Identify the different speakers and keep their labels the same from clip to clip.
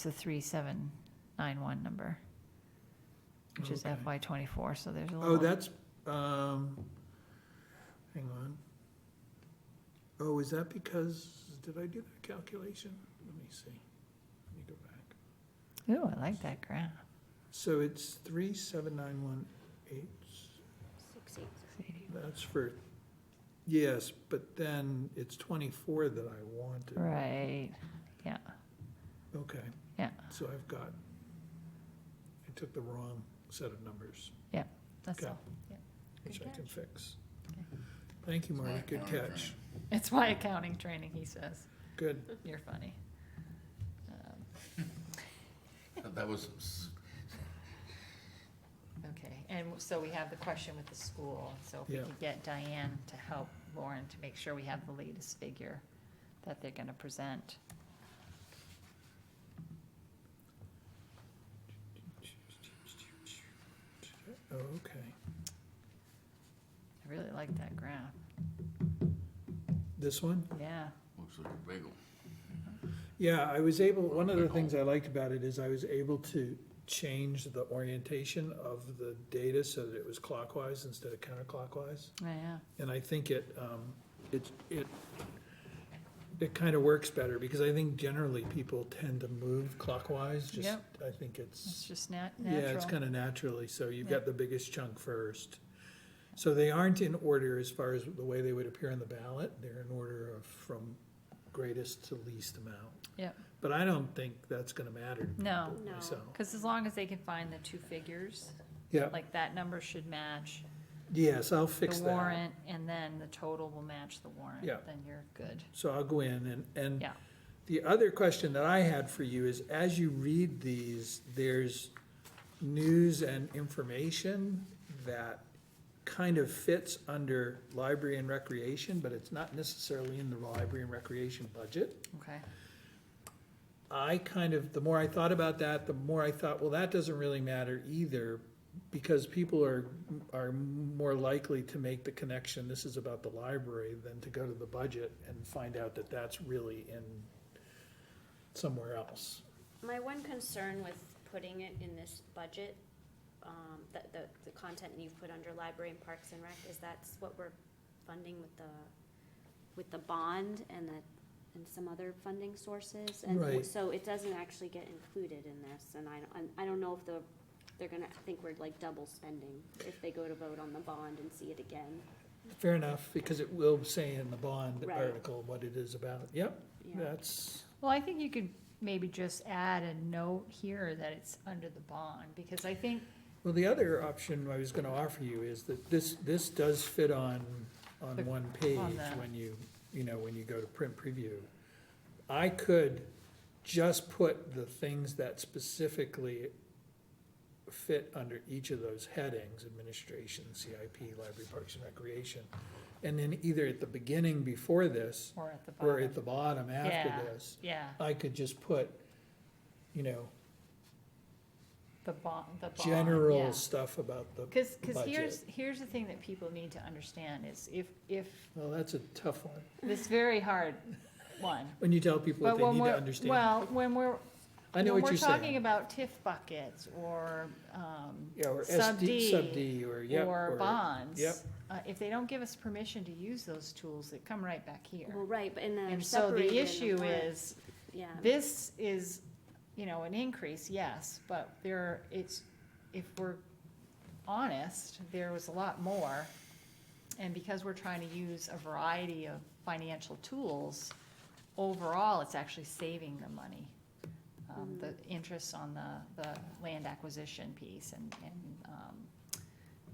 Speaker 1: It's the 3791 number, which is
Speaker 2: Okay.
Speaker 1: FY '24, so there's a little.
Speaker 2: Oh, that's, um, hang on. Oh, is that because, did I do that calculation? Let me see. Let me go back.
Speaker 1: Ooh, I like that graph.
Speaker 2: So it's three, seven, nine, one, eight.
Speaker 3: Six eight.
Speaker 2: That's for, yes, but then it's twenty-four that I wanted.
Speaker 1: Right, yeah,
Speaker 2: Okay.
Speaker 1: Yeah.
Speaker 2: So I've got, I took the wrong set of numbers,
Speaker 1: that's
Speaker 2: Okay.
Speaker 1: all.
Speaker 2: which
Speaker 3: Good
Speaker 2: I can fix.
Speaker 1: Okay.
Speaker 2: Thank you, Marty.
Speaker 4: Alright,
Speaker 2: Good
Speaker 4: alright,
Speaker 2: catch.
Speaker 1: It's my accounting training, he says.
Speaker 2: Good.
Speaker 1: You're funny. Um,
Speaker 4: That- That was, s-
Speaker 1: Okay, and so we have the question with the school, so if we
Speaker 2: Yeah.
Speaker 1: could get Diane to help Lauren to make sure we have the latest figure that they're gonna present.
Speaker 2: Oh, okay.
Speaker 1: I really like that graph,
Speaker 2: This one?
Speaker 1: yeah.
Speaker 4: looks like a bagel.
Speaker 2: Yeah, I was able, one of the things I liked about it is I was able to change the orientation of the data so that it was clockwise instead of counterclockwise.
Speaker 1: Yeah,
Speaker 2: And I think it, um, it, it, it kind of works better because I think generally people tend to move clockwise, just,
Speaker 1: Yep.
Speaker 2: I think
Speaker 1: it's
Speaker 2: it's,
Speaker 1: just nat-
Speaker 2: yeah,
Speaker 1: natural.
Speaker 2: it's kind of naturally, so you've
Speaker 1: Yeah.
Speaker 2: got the biggest chunk first. So they aren't in order as far as the way they would appear on the ballot, they're in order of from greatest to least amount.
Speaker 1: Yep.
Speaker 2: But I don't think that's gonna matter to
Speaker 1: No,
Speaker 2: people
Speaker 3: No.
Speaker 2: myself.
Speaker 1: because as long as they can find the two figures,
Speaker 2: Yeah,
Speaker 1: like that number should match
Speaker 2: yes, I'll
Speaker 1: the
Speaker 2: fix that.
Speaker 1: warrant, and then the total will match the warrant,
Speaker 2: Yeah.
Speaker 1: then you're good.
Speaker 2: So I'll go in and, and
Speaker 1: Yeah.
Speaker 2: the other question that I had for you is, as you read these, there's news and information that kind of fits under library and recreation, but it's not necessarily in the library and recreation budget.
Speaker 1: Okay,
Speaker 2: I kind of, the more I thought about that, the more I thought, well, that doesn't really matter either, because people are, are more likely to make the connection, this is about the library, than to go to the budget and find out that that's really in somewhere else.
Speaker 3: My one concern with putting it in this budget, um, the, the, the content you've put under library and parks and rec, is that's what we're funding with the, with the bond and the, and some other funding sources. and
Speaker 2: Right.
Speaker 3: So it doesn't actually get included in this, and I, don't- I don't know if the, they're gonna think we're like double spending if they go to vote on the bond and see it again.
Speaker 2: Fair enough, because it will say in the bond
Speaker 3: Right.
Speaker 2: article what it is about, yep,
Speaker 3: Yeah,
Speaker 2: that's,
Speaker 1: well, I think you could maybe just add a note here that it's under the bond, because I think,
Speaker 2: well, the other option I was gonna offer you is that this, this does fit on, on
Speaker 1: The-
Speaker 2: one page
Speaker 1: the-
Speaker 2: when you, you know, when you go to print preview. I could just put the things that specifically fit under each of those headings, administration, CIP, library, parks and recreation. And then either at the beginning before this,
Speaker 1: or at the bottom.
Speaker 2: or at the bottom
Speaker 1: Yeah.
Speaker 2: after this,
Speaker 1: Yeah,
Speaker 2: I could just put, you know,
Speaker 1: the bond, the bond, yeah.
Speaker 2: general stuff about the,
Speaker 1: Because, because
Speaker 2: budget.
Speaker 1: here's, here's the thing that people need to understand is if, if,
Speaker 2: well, that's a tough one.
Speaker 1: this very hard one.
Speaker 2: When you tell people
Speaker 1: But
Speaker 2: what they
Speaker 1: when
Speaker 2: need to
Speaker 1: we're,
Speaker 2: understand.
Speaker 1: well, when we're,
Speaker 2: I know
Speaker 1: when
Speaker 2: what you're
Speaker 1: we're talking
Speaker 2: saying.
Speaker 1: about TIF buckets or, um,
Speaker 2: Yeah, or
Speaker 1: sub D
Speaker 2: SD, sub D, or, yep.
Speaker 1: or bonds.
Speaker 2: yep.
Speaker 1: Uh, if they don't give us permission to use those tools, they come right back here.
Speaker 3: well, right, but and then
Speaker 1: And so the issue
Speaker 3: is
Speaker 1: is,
Speaker 3: yeah.
Speaker 1: this is, you know, an increase, yes, but there, it's, if we're honest, there was a lot more. And because we're trying to use a variety of financial tools, overall, it's actually saving the money. Um, the
Speaker 3: Mm-hmm.
Speaker 1: interest on the, the land acquisition piece and, and, um,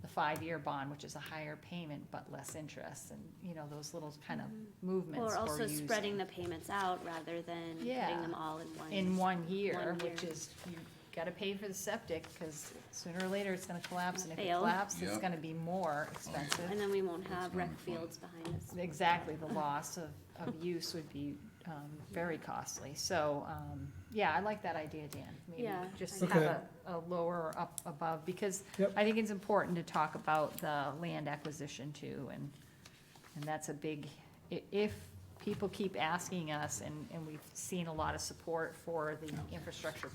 Speaker 1: the five-year bond, which is a higher payment but less interest, and, you know, those little kind of movements
Speaker 3: Or
Speaker 1: we're
Speaker 3: Mm-hmm. also
Speaker 1: using
Speaker 3: spreading the payments out rather than
Speaker 1: Yeah.
Speaker 3: putting them all in one.
Speaker 1: in one year,
Speaker 3: One
Speaker 1: which
Speaker 3: year.
Speaker 1: is, you gotta pay for the septic, because sooner or later, it's gonna collapse, and if it
Speaker 3: Fail.
Speaker 1: collapses, it's
Speaker 4: Yep.
Speaker 1: gonna be more expensive.
Speaker 3: And then we won't
Speaker 4: It's
Speaker 3: have
Speaker 4: gonna
Speaker 3: rec
Speaker 4: be fun.
Speaker 3: fields behind us.
Speaker 1: Exactly, the loss of, of use would be, um, very costly, so, um, yeah, I like that idea, Dan. Maybe
Speaker 3: Yeah,
Speaker 1: just
Speaker 3: I
Speaker 1: have
Speaker 2: agree.
Speaker 1: a, a lower or up above, because
Speaker 2: Yep.
Speaker 1: I think it's important to talk about the land acquisition too, and, and that's a big, i- if people keep asking us, and, and we've seen a lot of support for the infrastructure